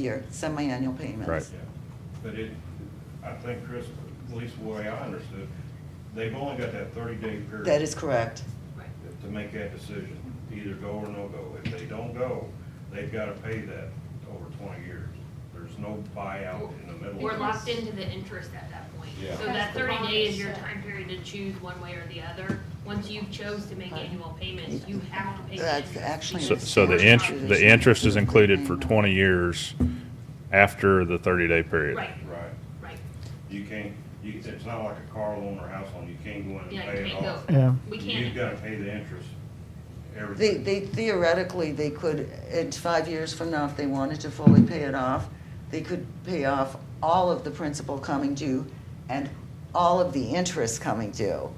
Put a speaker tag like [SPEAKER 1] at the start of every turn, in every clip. [SPEAKER 1] year, semi-annual payments.
[SPEAKER 2] Right.
[SPEAKER 3] Yeah, But it, I think Chris, at least the way I understood, they've only got that thirty-day period.
[SPEAKER 1] That is correct.
[SPEAKER 4] Right.
[SPEAKER 3] To make that decision, either go or no go. If they don't go, they've gotta pay that over twenty years. There's no buyout in the middle.
[SPEAKER 4] We're locked into the interest at that point.
[SPEAKER 3] Yeah.
[SPEAKER 4] So that
[SPEAKER 5] That's the
[SPEAKER 4] thirty
[SPEAKER 5] bond
[SPEAKER 4] days is your
[SPEAKER 5] set.
[SPEAKER 4] time period to choose one way or the other. Once you've chose to make annual payments, you have to pay. the
[SPEAKER 1] That's
[SPEAKER 4] interest
[SPEAKER 1] actually-
[SPEAKER 2] So,
[SPEAKER 4] because
[SPEAKER 2] so the
[SPEAKER 4] it's
[SPEAKER 2] int,
[SPEAKER 4] not-
[SPEAKER 2] the interest is included for twenty years after the thirty-day period.
[SPEAKER 4] Right,
[SPEAKER 3] Right.
[SPEAKER 4] right.
[SPEAKER 3] You can't, you, it's not like a car loan or house loan. You can't go in and
[SPEAKER 4] Yeah, you
[SPEAKER 3] pay it
[SPEAKER 4] can't
[SPEAKER 3] off.
[SPEAKER 4] go. We
[SPEAKER 3] You've
[SPEAKER 4] can't.
[SPEAKER 3] gotta pay the interest,
[SPEAKER 1] They,
[SPEAKER 3] everything.
[SPEAKER 1] they theoretically, they could, in five years from now, if they wanted to fully pay it off, they could pay off all of the principal coming due and all of the interest coming due.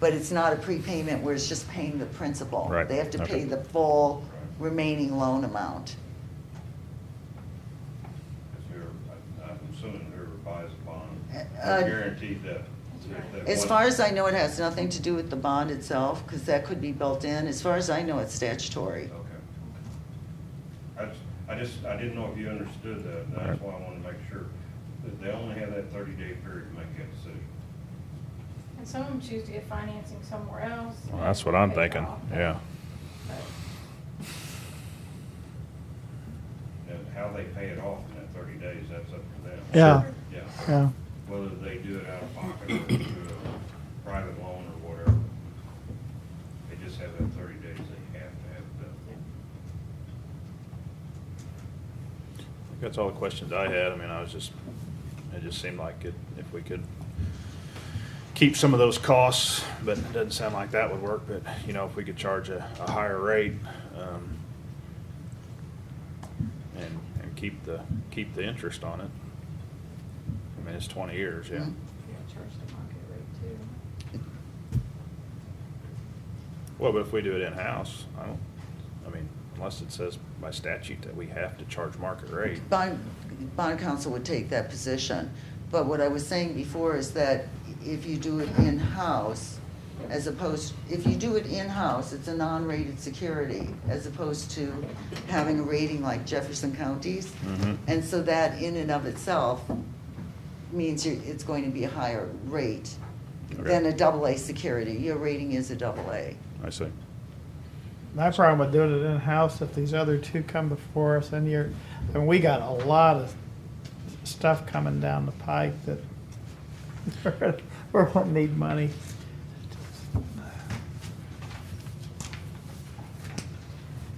[SPEAKER 1] But it's not a prepayment where it's just paying the principal.
[SPEAKER 2] Right,
[SPEAKER 1] They have to
[SPEAKER 2] okay.
[SPEAKER 1] pay the full remaining loan amount.
[SPEAKER 3] If you're- I- I'm assuming whoever buys a bond,
[SPEAKER 1] Uh,
[SPEAKER 3] they're guaranteed that. that
[SPEAKER 1] As
[SPEAKER 3] one-
[SPEAKER 1] far as I know, it has nothing to do with the bond itself, because that could be built in. As far as I know, it's statutory.
[SPEAKER 3] Okay. I, just- I just, I didn't know if you understood that, and that's why I wanted to make sure, that they only have that thirty-day period to make that decision.
[SPEAKER 5] And some of them choose to get financing somewhere else.
[SPEAKER 2] Well, that's what I'm
[SPEAKER 5] Pay it
[SPEAKER 2] thinking,
[SPEAKER 5] off.
[SPEAKER 2] yeah.
[SPEAKER 5] But-
[SPEAKER 3] And how they pay it off in that thirty days, that's up to them.
[SPEAKER 6] Yeah. Sure.
[SPEAKER 3] Yeah,
[SPEAKER 6] Yeah,
[SPEAKER 3] whether they do it out of pocket or do a private loan or whatever. They just have that thirty days they have to have it done.
[SPEAKER 2] That's all the questions I had. I mean, I was just, it just seemed like it, if we could keep some of those costs, but it doesn't sound like that would work, but, you know, if we could charge a, a higher rate, um, and, and keep the, keep the interest on it. I mean, it's twenty years, yeah.
[SPEAKER 1] Mhm.
[SPEAKER 5] Yeah, charge the market rate too.
[SPEAKER 2] Well, but if we do it in-house, I don't, I mean, unless it says by statute that we have to charge market rate.
[SPEAKER 1] Bond, bond counsel would take that position. But what I was saying before is that if you do it in-house, as opposed, if you do it in-house, it's a non-rated security, as opposed to having a rating like Jefferson County's.
[SPEAKER 2] Mhm.
[SPEAKER 1] And so that in and of itself means you- it's going to be a higher rate than
[SPEAKER 2] Okay.
[SPEAKER 1] a double A security. Your rating is a double A.
[SPEAKER 2] I see.
[SPEAKER 6] my problem with doing it in-house, if these other two come before us, and you're, and we got a lot of stuff coming down the pike that we're gonna need money.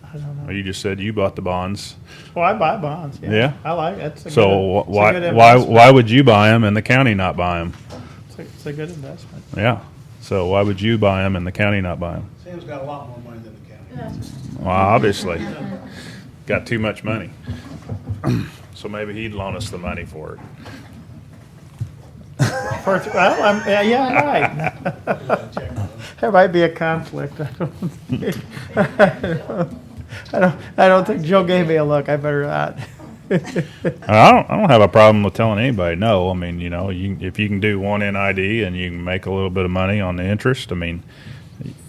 [SPEAKER 6] I don't
[SPEAKER 2] Well,
[SPEAKER 6] know.
[SPEAKER 2] You just said you bought the bonds,
[SPEAKER 6] Well, I buy bonds, yeah.
[SPEAKER 2] Yeah?
[SPEAKER 6] I like, that's a good.
[SPEAKER 2] so
[SPEAKER 6] it's a
[SPEAKER 2] why,
[SPEAKER 6] good
[SPEAKER 2] why,
[SPEAKER 6] investment.
[SPEAKER 2] why would you buy them and the county not buy them?
[SPEAKER 6] It's a- It's a good investment.
[SPEAKER 2] Yeah. So why would you buy them and the county not buy them?
[SPEAKER 7] Sam's got a lot more money than the county.
[SPEAKER 2] Well, obviously, got too much money. So maybe he'd loan us the money for it.
[SPEAKER 6] For, well, I'm, yeah, yeah, right. There might be a conflict. I don't, think- I don't, I don't think Joe gave me a look. I better not.
[SPEAKER 2] I don't, I don't have a problem with telling anybody no. I mean, you know, you, if you can do one NID and you can make a little bit of money on the interest, I mean,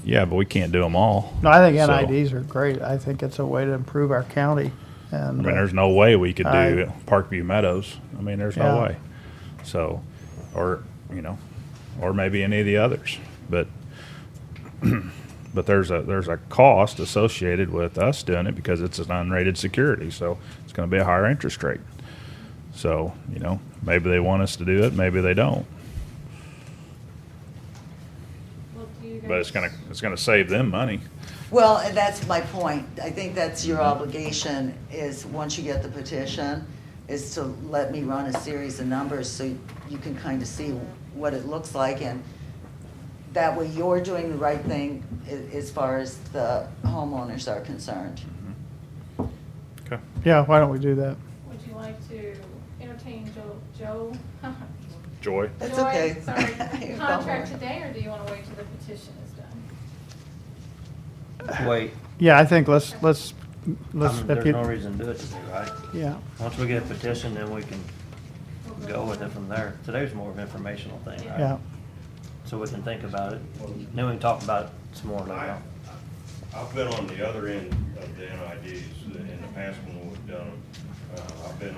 [SPEAKER 2] yeah, but we can't do them all.
[SPEAKER 6] No, I think
[SPEAKER 2] So,
[SPEAKER 6] NIDs are great. I think it's a way to improve our county.
[SPEAKER 2] I
[SPEAKER 6] And
[SPEAKER 2] mean,
[SPEAKER 6] uh,
[SPEAKER 2] there's no way we could do
[SPEAKER 6] I-
[SPEAKER 2] Parkview Meadows. I mean, there's no
[SPEAKER 6] Yeah.
[SPEAKER 2] way. So, or, you know, or maybe any of the others, but, but there's a, there's a cost associated with us doing it because it's an unrated security, so it's gonna be a higher interest rate. So, you know, maybe they want us to do it, maybe they don't,
[SPEAKER 5] Well, do you
[SPEAKER 2] but it's
[SPEAKER 5] guys-
[SPEAKER 2] gonna, it's gonna save them money.
[SPEAKER 1] Well, and that's my point. I think that's your obligation is, once you get the petition, is to let me run a series of numbers so you can kind of see what it looks like. And that way you're doing the right thing a- as far as the homeowners are concerned.
[SPEAKER 2] Okay.
[SPEAKER 6] yeah, why don't we do that?
[SPEAKER 5] Would you like to entertain Joe, Joe?
[SPEAKER 2] Joy?
[SPEAKER 1] That's
[SPEAKER 5] Joy,
[SPEAKER 1] okay.
[SPEAKER 5] Sorry,
[SPEAKER 1] Don't
[SPEAKER 5] contract
[SPEAKER 1] worry.
[SPEAKER 5] today, or do you wanna wait till the petition is done?
[SPEAKER 8] Wait,
[SPEAKER 6] Yeah, I think let's let's
[SPEAKER 8] I
[SPEAKER 6] let's. if
[SPEAKER 8] mean, Um, there's
[SPEAKER 6] you-
[SPEAKER 8] no reason to do it today, right?
[SPEAKER 6] Yeah,
[SPEAKER 8] Once we get a petition, then we can
[SPEAKER 5] We'll
[SPEAKER 8] go with it from there. Today's more of an informational thing, right?
[SPEAKER 6] yeah.
[SPEAKER 8] So we can think about it. Then we can talk about it some more later
[SPEAKER 3] I-
[SPEAKER 8] on.
[SPEAKER 3] I've been on the other end of the NIDs in the past when we've done them. Uh, I've been